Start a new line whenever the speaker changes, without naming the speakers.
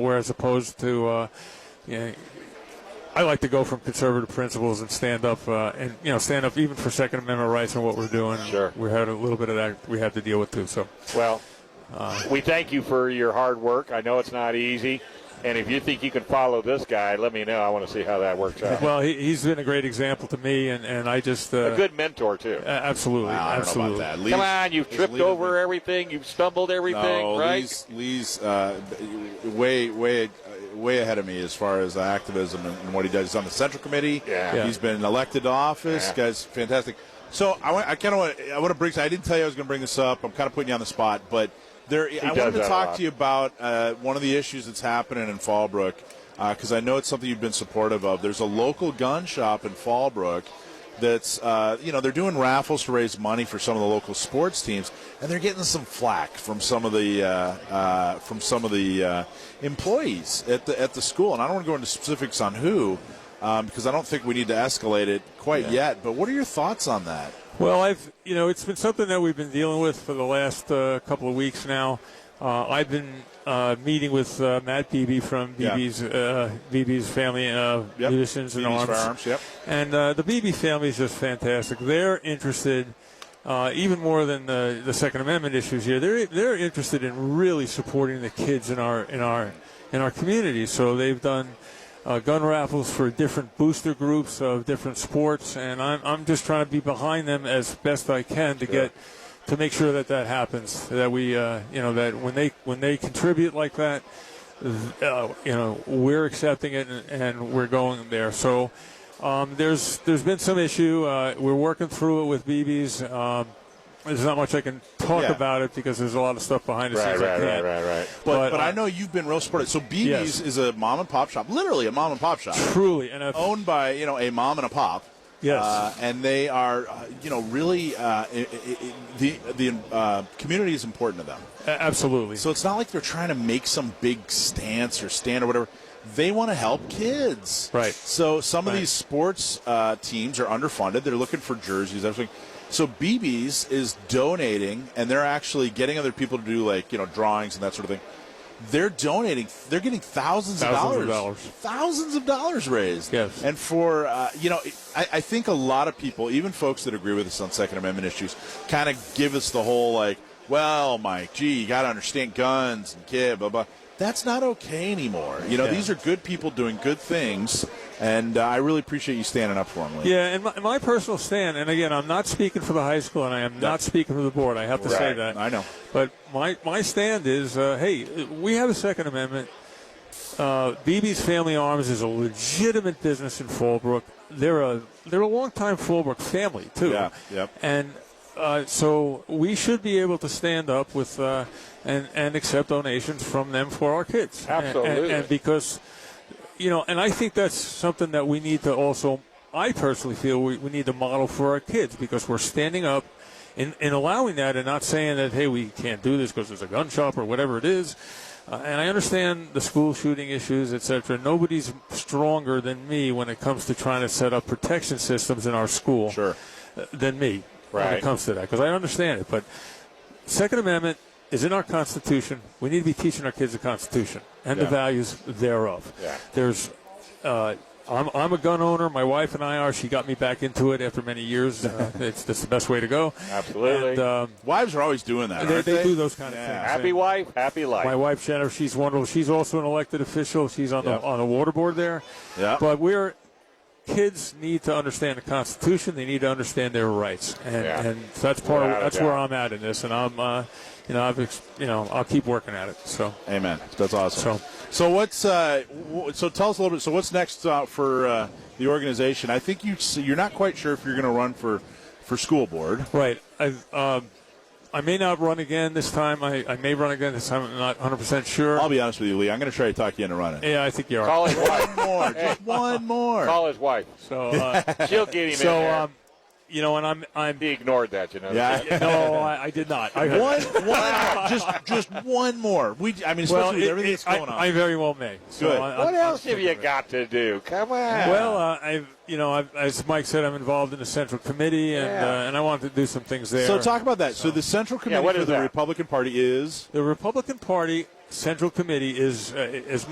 whereas opposed to, uh, you know, I like to go from conservative principles and stand up, uh, and you know, stand up even for Second Amendment rights and what we're doing.
Sure.
we had a little bit of that we had to deal with too. So,
Well, we thank you for your hard work. I know it's not easy. And if you think you can follow this guy, let me know. I want to see how that works out.
well, he, he's been a great example to me, and, and I just uh,
a good mentor, too.
a- absolutely,
Wow, I don't know
absolutely.
about that.
Come on, you've
he's
tripped
leading
over
the-
everything. You've stumbled everything,
no,
right?
Lee's, Lee's uh, way, way, way ahead of me as far as activism and, and what he does. He's on the Central Committee.
Yeah.
Yeah.
He's been elected to office.
Yeah.
Guy's fantastic. So I, want, I kind of want, I want to bring. I didn't tell you I was going to bring this up. I'm kind of putting you on the spot, but there. I
does
wanted to
that a
talk
lot.
to you about uh, one of the issues that's happening in Fallbrook because I know it's something you've been supportive of. There's a local gun shop in Fallbrook that's uh, you know they're doing raffles to raise money for some of the local sports teams, and they're getting some flack from some of the uh, uh, from some of the uh, employees at the at the school. And I don't want to go into specifics on who. Um, because I don't think we need to escalate it quite yet, but what are your thoughts on that?
Well, I've you know it's been something that we've been dealing with for the last uh, couple of weeks now. Uh, I've been uh, meeting with uh, Matt Beebe from
Yeah.
Beebe's uh, Beebe's family uh,
Yep.
musicians and
Beebe's
arms.
Firearms, yep.
And uh, the Beebe family is just fantastic. They're interested. Uh, even more than the, the Second Amendment issues here, they're they're interested in really supporting the kids in our in our in our community. So they've done uh, gun raffles for different booster groups of different sports, and I'm, I'm just trying to be behind them as best I can to get to make sure that that happens. That we, uh, you know, that when they when they contribute like that, uh, you know, we're accepting it and, and we're going there. So um, there's there's been some issue. Uh, we're working through it with BB's. Um, there's not much I can talk
Yeah.
about it because there's a lot of stuff behind the
right,
scenes. I
right, right,
can't.
right, right.
But,
But,
but
uh,
I know you've been real supportive. So BB's
Yes.
is a mom and pop shop, literally a mom and pop shop,
Truly, and if,
owned by you know a mom and a pop.
Yes.
uh, and they are uh, you know really uh, i i i the the uh, community is important to them.
a- absolutely.
So it's not like they're trying to make some big stance or stand or whatever. They want to help kids.
Right.
So some of
Right.
these sports uh, teams are underfunded. They're looking for jerseys, everything. So BB's is donating, and they're actually getting other people to do like you know drawings and that sort of thing. They're donating. They're getting thousands,
Thousands of
of dollars,
dollars.
thousands of dollars raised.
Yes.
And for uh, you know, I, I think a lot of people, even folks that agree with us on Second Amendment issues, kind of give us the whole like, "Well, Mike, gee, you got to understand guns and kid, blah blah." That's not okay anymore. You know,
Yeah.
these are good people doing good things, and uh, I really appreciate you standing up for them. Lee.
Yeah, and my, my personal stand, and again, I'm not speaking for the high school, and I am not speaking for the board. I have to say
Right.
that.
I know.
But my my stand is, uh, hey, we have a Second Amendment. Uh, BB's Family Arms is a legitimate business in Fallbrook. They're a they're a longtime Fallbrook family too.
Yeah, yep.
And uh, so we should be able to stand up with uh, and and accept donations from them for our kids. And- and-
Absolutely.
and because you know, and I think that's something that we need to also, I personally feel we, we need to model for our kids because we're standing up and, and allowing that and not saying that, hey, we can't do this because there's a gun shop or whatever it is. Uh, and I understand the school shooting issues, et cetera. Nobody's stronger than me when it comes to trying to set up protection systems in our school
Sure.
uh, than me when
Right.
it comes to that because I understand it. But Second Amendment is in our Constitution. We need to be teaching our kids the Constitution and
Yeah.
the values thereof.
Yeah.
There's, uh, I'm, I'm a gun owner. My wife and I are. She got me back into it after many years. Uh, it's that's the best way to go.
Absolutely.
And, um,
Wives are always doing that.
they,
aren't
they do those kind of
Yeah.
things.
Happy
And
wife, happy life.
my wife Jennifer, she's wonderful. She's also an elected official. She's on
Yeah.
the on the water board there.
Yeah.
But we're kids need to understand the Constitution. They need to understand their rights, and,
Yeah.
and that's part. Of,
Without a
that's where I'm
doubt.
at in this, and I'm, uh, you know, I've, ex- you know, I'll keep working at it. So.
Amen. That's awesome. So,
So-
what's uh, w- so tell us a little bit. So what's next uh, for uh, the organization? I think you s- you're not quite sure if you're going to run for for school board.
Right. I've, um, I may not run again this time. I, I may run again this time. I'm not 100% sure.
I'll be honest with you, Lee. I'm going to try to talk you into running.
yeah, I think you are.
Call his wife.
One more, just one more.
Call his wife.
so, uh,
She'll get him in
so
there.
um, you know, and I'm, I'm.
he ignored that, you know.
Yeah.
No, I, I did not. I,
One, one, just, just one more. We, I mean, especially
Well,
with
it-
everything
it-
that's going
I,
on.
I very well may. So
Good.
I, I'm-
What
I'm
else have
thinking
you
of it.
got to do? Come on.
Well, uh, I've, you know, I've, as Mike said, I'm involved in the central committee, and
Yeah.
uh, and I wanted to do some things there.
so talk about that. So the central committee
what
for
is
the
that?
Republican Party is
the Republican Party Central Committee is uh, is